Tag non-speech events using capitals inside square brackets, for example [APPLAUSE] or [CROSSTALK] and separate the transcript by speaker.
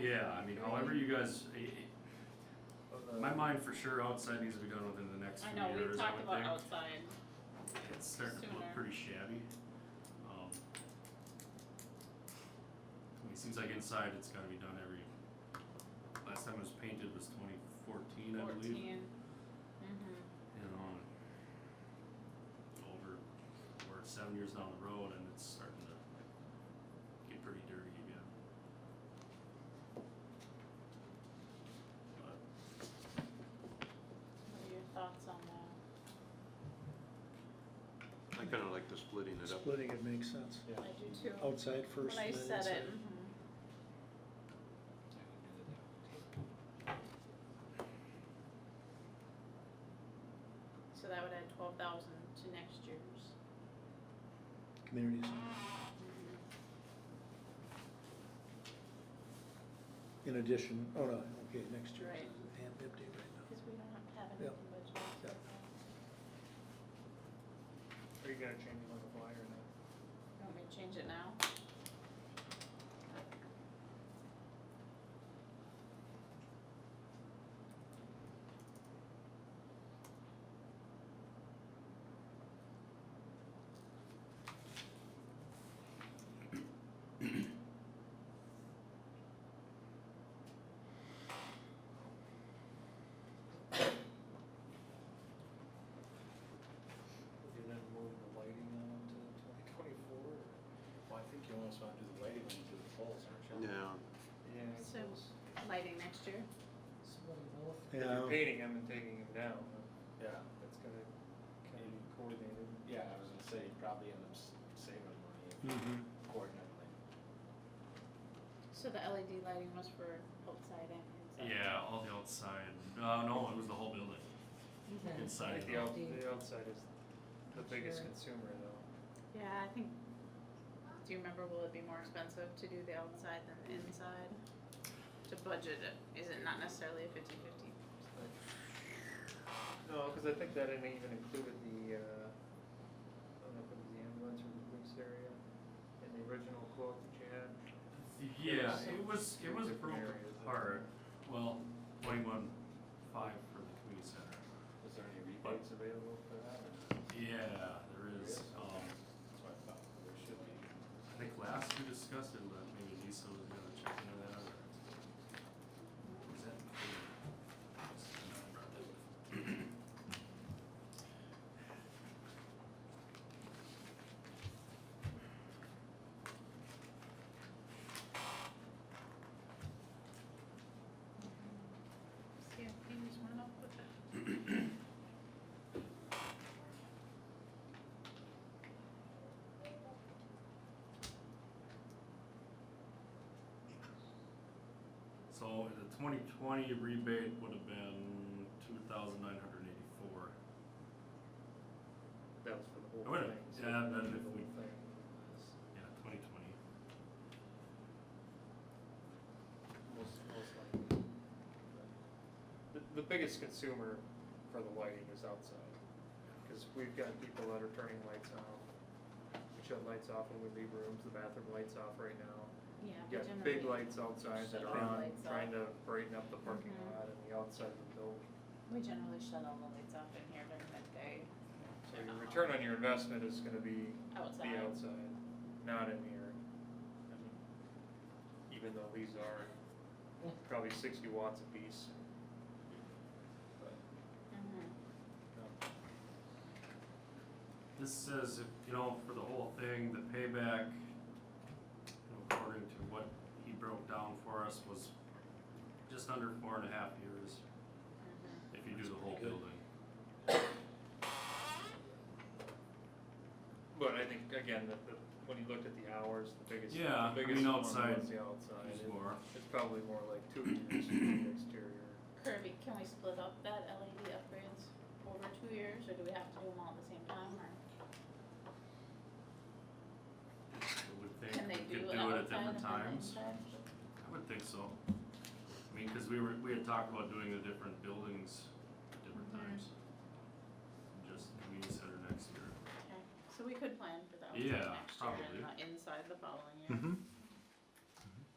Speaker 1: Yeah, I mean, however you guys, i- i- my mind for sure outside needs to be done within the next
Speaker 2: I
Speaker 1: few
Speaker 2: know, we've
Speaker 1: years, I
Speaker 2: talked
Speaker 1: would
Speaker 2: about
Speaker 1: think.
Speaker 2: outside.
Speaker 1: It's starting to
Speaker 2: sooner.
Speaker 1: look pretty shabby. Um. I mean, it seems like inside it's gotta be done every, last time it was painted was twenty fourteen, I believe.
Speaker 2: 14 Mm-hmm.
Speaker 1: you know, and uh, over, we're seven years down the road and it's starting to get pretty dirty again. But
Speaker 2: What are your thoughts on that?
Speaker 3: I kinda like the splitting it up.
Speaker 4: Splitting it makes sense.
Speaker 5: Yeah.
Speaker 2: I do too.
Speaker 4: Outside Oh, first
Speaker 2: When I
Speaker 4: and then inside.
Speaker 2: said it, mhm. so that would add twelve thousand to next year's.
Speaker 4: Community center.
Speaker 2: Mm-hmm.
Speaker 4: In addition, oh no, okay, next year.
Speaker 2: Right.
Speaker 4: Damn empty right
Speaker 2: Cause we don't have
Speaker 4: Yeah.
Speaker 2: anything budgeted.
Speaker 4: Yeah.
Speaker 5: Or you gotta change it on the fly or not.
Speaker 2: Want me to change it now?
Speaker 5: You're then moving the lighting on to twenty twenty-four?
Speaker 6: Well, I think you almost wanna do the lighting when you do the poles, aren't you?
Speaker 3: Yeah,
Speaker 5: Yeah. I
Speaker 2: So-
Speaker 5: suppose.
Speaker 2: Lighting next year?
Speaker 5: If you're
Speaker 4: now. Yeah,
Speaker 5: painting them and taking them down,
Speaker 6: Yeah,
Speaker 5: that's gonna kinda be coordinated.
Speaker 6: yeah, I was gonna say, you probably end up s- saving money if you
Speaker 4: Mhm.
Speaker 6: coordinate them.
Speaker 2: So the LED lighting was for outside and inside?
Speaker 1: Yeah, all the outside, uh, no, it was the whole building,
Speaker 5: I
Speaker 1: inside
Speaker 5: think the
Speaker 1: though.
Speaker 5: out, the outside is the
Speaker 7: Not
Speaker 5: biggest
Speaker 7: sure.
Speaker 5: consumer though.
Speaker 2: Yeah, I think, do you remember, will it be more expensive to do the outside than the inside? To budget it, is it not necessarily a fifty fifty?
Speaker 5: No, cause I think that didn't even included the, uh, I don't know if it was the ambulance or the police area in the original quote that you had. There
Speaker 1: Yeah,
Speaker 5: was
Speaker 1: it was,
Speaker 5: three
Speaker 1: it was
Speaker 5: different
Speaker 1: broken
Speaker 5: areas that-
Speaker 1: apart, well, twenty-one five for the community center.
Speaker 6: Is there any rebates available for that? or-
Speaker 1: Yeah, there is, um,
Speaker 6: That's what I thought, there should be.
Speaker 1: I think last we discussed it, but maybe Lisa was gonna check into that or. Was that?
Speaker 2: CFP was one up with it.
Speaker 1: So the twenty twenty rebate would have been two thousand nine hundred eighty-four.
Speaker 5: That was for the whole
Speaker 1: Oh, wait a
Speaker 5: thing.
Speaker 1: minute.
Speaker 5: so
Speaker 1: Yeah,
Speaker 5: the
Speaker 1: then if
Speaker 5: whole
Speaker 1: we-
Speaker 5: thing was
Speaker 1: Yeah, twenty twenty.
Speaker 5: Most, most likely. The, the biggest consumer for the lighting is outside, cause we've got people that are turning lights off. We shut lights off when we leave rooms, the bathroom lights off right now.
Speaker 2: Yeah.
Speaker 5: You got big lights outside that
Speaker 7: Shut
Speaker 5: are
Speaker 7: all
Speaker 5: on,
Speaker 2: lights
Speaker 5: trying to brighten up the parking
Speaker 2: Mhm.
Speaker 5: lot and the outside of the building.
Speaker 2: We generally shut all the lights off in here during the day,
Speaker 5: So your return on your investment is gonna be
Speaker 2: outside.
Speaker 5: the outside, not in here. I mean, Even though these are probably sixty watts apiece. But
Speaker 2: Mhm.
Speaker 1: This says, if, you know, for the whole thing, the payback, you know, according to what he broke down for us, was just under four and a half years
Speaker 2: Mhm.
Speaker 1: if you do the whole building.
Speaker 5: But I think again, the, the, when you looked at the hours, the biggest,
Speaker 1: Yeah,
Speaker 5: the
Speaker 1: I
Speaker 5: biggest
Speaker 1: mean,
Speaker 5: one
Speaker 1: outside
Speaker 5: was the outside.
Speaker 1: There's
Speaker 5: It-
Speaker 1: more.
Speaker 5: It's probably more like two years for the exterior.
Speaker 2: Kirby, can we split up that LED upgrades over two years, or do we have to do them all at the same time, or?
Speaker 1: I would think
Speaker 2: Can they
Speaker 1: we
Speaker 2: do
Speaker 1: could
Speaker 2: an
Speaker 1: do
Speaker 2: outside
Speaker 1: it at different times.
Speaker 2: and an inside?
Speaker 1: I would think so. I mean, cause we were, we had talked about doing the different buildings at different
Speaker 2: Mhm.
Speaker 1: times. Just community center next year.
Speaker 2: Okay, so we could plan for the
Speaker 1: Yeah, [LAUGHS]
Speaker 2: outside next year and the inside the following year.
Speaker 3: Mhm.